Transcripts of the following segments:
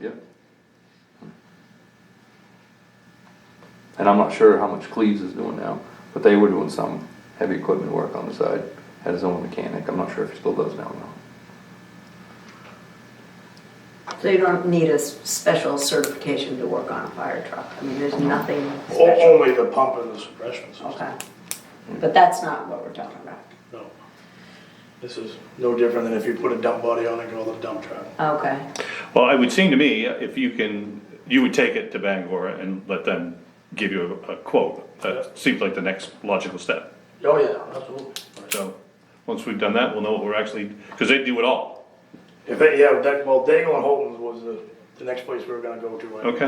Yep. And I'm not sure how much Cleves is doing now, but they were doing some heavy equipment work on the side, had his own mechanic, I'm not sure if he still does now or not. So you don't need a s- special certification to work on a fire truck? I mean, there's nothing O- special? Only the pump and the suppression system, Okay. Mm. But that's not what we're talking about. no. This is no different than if you put a dump body on and go with a dump truck. Okay, Well, it would seem to me, if you can, you would take it to Bangor and let them give you a a quote. That seems like the next logical step. Oh, yeah, absolutely. So, once we've done that, we'll know what we're actually, because they do it all, If, it- yeah, that, well, Daigle and Holton's was the, the next place we were gonna go to. I think. okay?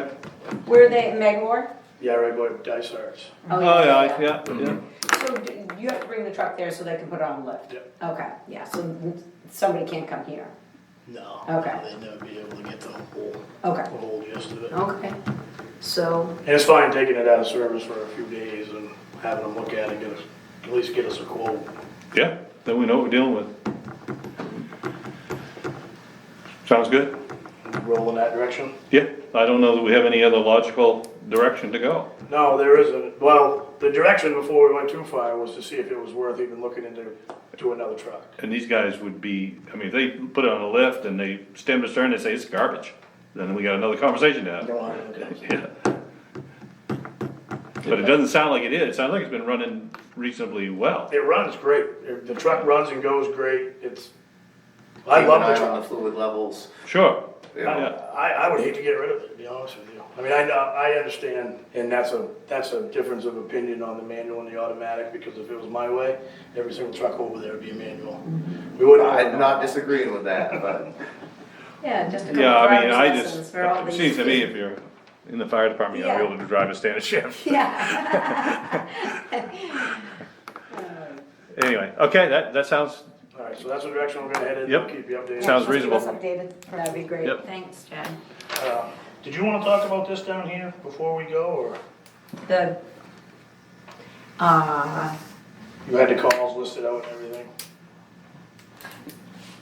where are they, Megawar? Yeah, right, but Dysart's. Oh, yeah, yeah, yeah. So d- you have to bring the truck there so they can put it on lift? Yep. Okay, yeah, so n- somebody can't come here? No. Okay. They'd never be able to get the whole, Okay, the whole gist of it. And okay. So, it's fine taking it out of service for a few days and having them look at it, get us, at least get us a quote. Yeah, then we know what we're dealing with. Sounds good? Roll in that direction. Yeah, I don't know that we have any other logical direction to go. No, there isn't. Well, the direction before we went too far was to see if it was worth even looking into, to another truck. And these guys would be, I mean, if they put it on a lift and they stem to stern, they say it's garbage, then we got another conversation to have. Yeah. But it doesn't sound like it is, it sounds like it's been running reasonably well. It runs great. It- The truck runs and goes great. It's, I I love the on truck. the fluid levels. Sure, Yeah. yeah, I, I would hate to get rid of it, to be honest with you. I mean, I, know- I understand, and that's a, that's a difference of opinion on the manual and the automatic, because if it was my way, every single truck over there would be a manual. We wouldn't. I'm not disagreeing with that, but yeah, just a couple yeah, I mean, driver's I lessons just, for all it these. seems to me if you're in the fire department, you ought to be able to drive a standard shift. Yeah. Anyway, okay, that, that sounds, All right, so that's the direction we're gonna head in. Yep. Keep you updated. Sounds Yeah, just keep us reasonable. updated. That'd be great, Yep. thanks, Chad. Uh, Did you wanna talk about this down here before we go, or? The, uh, You had the calls listed out and everything?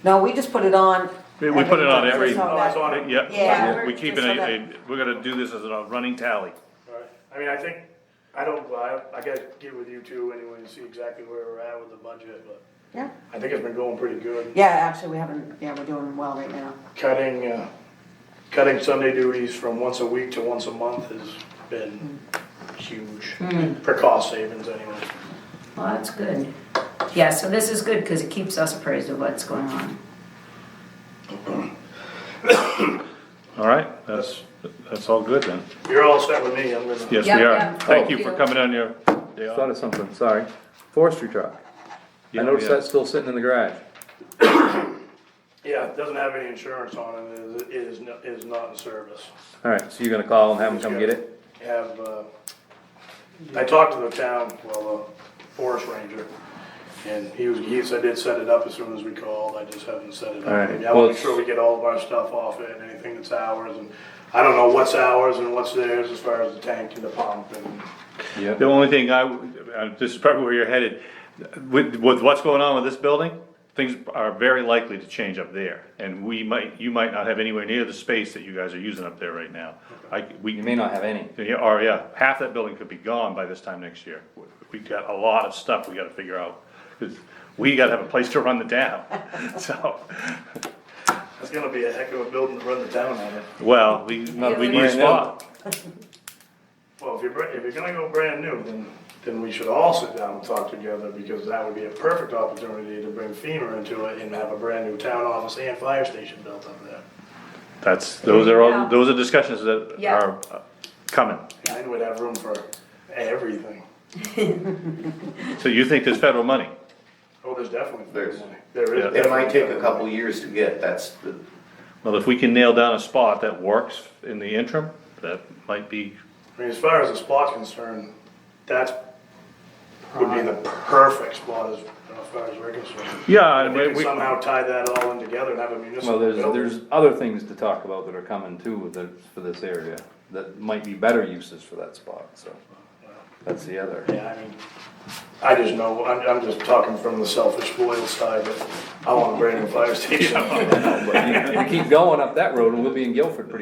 No, we just put it on. we we put it on every, So yeah, Oh, it's on it? yeah, we keep it, Yeah, we're- a- a- we're gonna do this as a running tally. All right. I mean, I think, I don't, I, I gotta get with you two anyway and see exactly where we're at with the budget, but Yeah, I think it's been going pretty good. yeah, actually, we haven't, yeah, we're doing well right now. Cutting, uh, cutting Sunday duties from once a week to once a month has been huge, for cost savings anyway. well, that's good. Yeah, so this is good, cause it keeps us appraised of what's going on. All right, that's, that's all good then. You're all set with me, I'm gonna. Yes, Yep, we are. yep. Thank you Thank for you. coming on your day off. Thought of something, sorry, forestry truck, I Yeah, noticed yeah. that's still sitting in the garage. Yeah, it doesn't have any insurance on it, it is- it is, no- it is not in service. Alright, so you're gonna call and have them come get it? have, uh, I talked to the town, well, the forest ranger, and he was, he said they'd set it up as soon as we called, I just haven't set it up. Alright, Yeah, I well, wanna make sure we get all of our stuff off it, and anything that's ours, and I don't know what's ours and what's theirs as far as the tank and the pump and. The only thing I, w- uh, this is probably where you're headed, with, with what's going on with this building, things are very likely to change up there. And we might, you might not have anywhere near the space that you guys are using up there right now. I, we. You may not have any. Yeah, or yeah, half that building could be gone by this time next year. We have got a lot of stuff we gotta figure out, 'cause we gotta have a place to run the town, so, It's gonna be a heck of a building to run the town on it. well, we, Not we need a brand new. spot. Well, if you're, br- if you're gonna go brand new, then, then we should all sit down and talk together, because that would be a perfect opportunity to bring FEMA into it and have a brand new town office and fire station built up there. That's, those are Yeah. all, those are discussions that Yeah. are uh, coming. And then we'd have room for everything. So you think there's federal money? Oh, there's definitely. There's- There is. Yeah. it might take a definitely- couple years to get, that's the, Well, if we can nail down a spot that works in the interim, that might be, I mean, as far as the spot's concerned, that's, would be the perfect spot as, as far as we're concerned. yeah, and If we we, could we- somehow tie that all in together and have a uh, Well, municipal there's, building. there's other things to talk about that are coming too with the, for this area, that might be better uses for that spot, so. That's the other. Yeah, I mean, I just know, I'm, I'm just talking from the selfish loyal side, but I want a brand new fire station. But you- You keep going up that road and we'll be in Guilford pretty